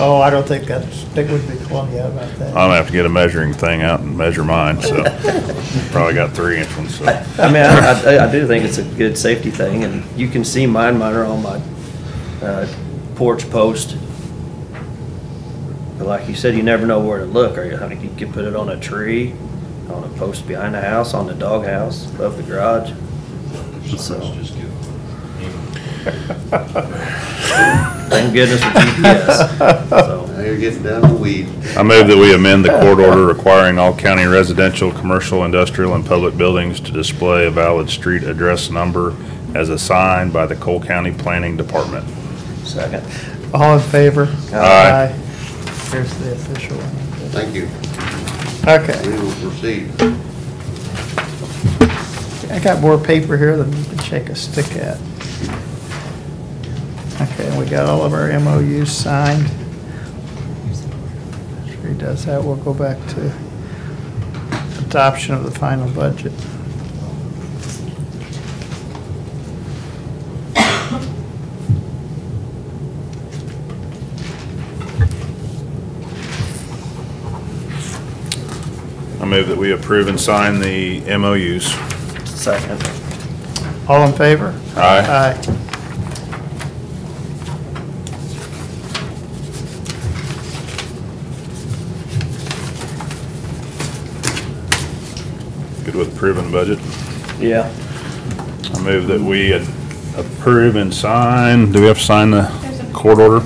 Oh, I don't think that's, I think would be Columbia about that. I'm gonna have to get a measuring thing out and measure mine, so, probably got three inch ones, so. I mean, I, I- I do think it's a good safety thing, and you can see mine, mine are on my uh, porch post. But like you said, you never know where to look, or you, I mean, you could put it on a tree, on a post behind the house, on the doghouse, above the garage. So, thank goodness for GPS, so. Now you're getting down to weed. I move that we amend the court order requiring all county residential, commercial, industrial, and public buildings to display a valid street address number as assigned by the Cole County Planning Department. Second. All in favor? Aye. Here's the official one. Thank you. Okay, We will proceed. I got more paper here than you can shake a stick at. Okay, we got all of our MOUs signed. After he does that, we'll go back to adoption of the final budget. I move that we approve and sign the MOUs. Second. All in favor? Aye. Aye. Good with approving budget. Yeah. I move that we ad- approve and sign, do we have to sign the court order?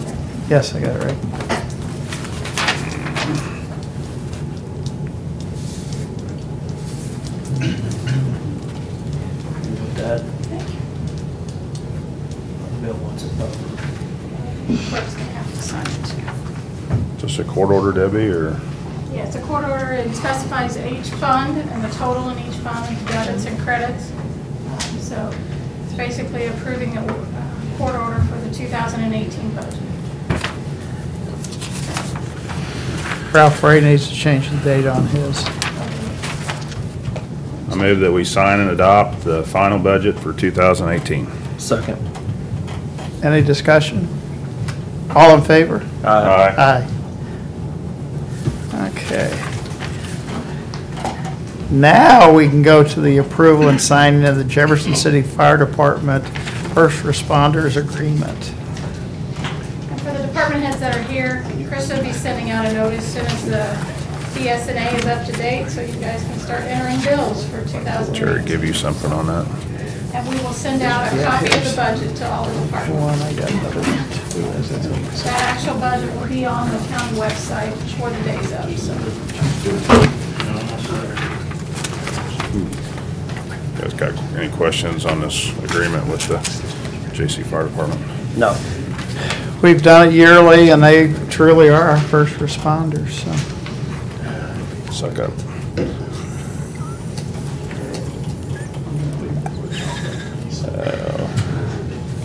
Yes, I got it right. With that. Bill wants it up. Clerk's gonna have to sign it too. Just a court order, Debbie, or? Yeah, it's a court order, it specifies each fund and the total in each fund, debits and credits. Um, So it's basically approving a uh, court order for the 2018 budget. Ralph Ray needs to change the date on his. I move that we sign and adopt the final budget for 2018. Second. Any discussion? All in favor? Aye. Aye. Okay. Now we can go to the approval and signing of the Jefferson City Fire Department First Responders Agreement. And for the department heads that are here, Chris will be sending out a notice soon as the BSNA is up to date, so you guys can start entering bills for Jerry, 2018. give you something on that. And we will send out a copy of the budget to all the departments. One, I got another one. That actual budget will be on the county website before the day's up, so. You guys got any questions on this agreement with the J.C. Fire Department? No. We've done it yearly, and they truly are our first responders, so. Suck up.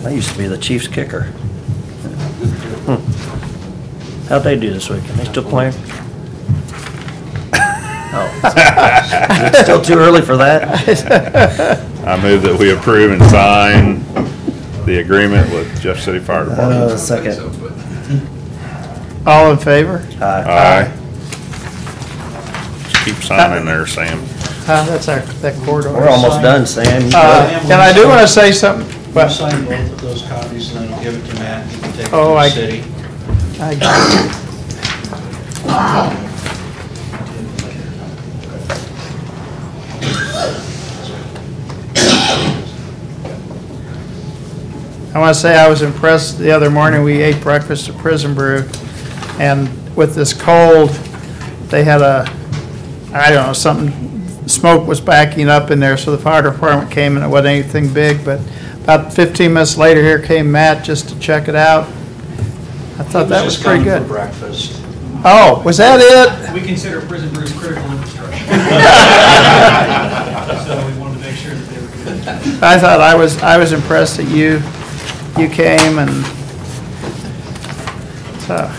I used to be the Chiefs kicker. Hmm. How'd they do this weekend? They still playing? Oh, it's still too early for that? I move that we approve and sign the agreement with Jeff City Fire Uh, Department. second. All in favor? Aye. Aye. Just Keep signing there, Sam. Huh, that's our, that corridor. We're almost done, Sam. You got Uh, it. And I do want to say something. We'll sign both of those copies and then I'll give it to Matt and he can take it to Oh, I- the city. I- I want to say I was impressed the other morning, we ate breakfast at Prison Brew, and with this cold, they had a, I don't know, something, smoke was backing up in there, so the fire department came and it wasn't anything big, but about 15 minutes later, here came Matt just to check it out. I thought that was Just pretty coming for good. breakfast. Oh, was that it? We consider prison brews critical infrastructure. So we wanted to make sure that they were good. I thought I was, I was impressed that you, you came and, so,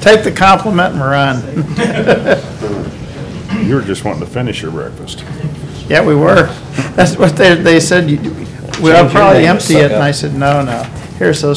take the compliment and run. You were just wanting to finish your breakfast. Yeah, we were. That's what they, they said, you- we'll Change your probably name to empty it, suck and I up. said, no, no. Here's those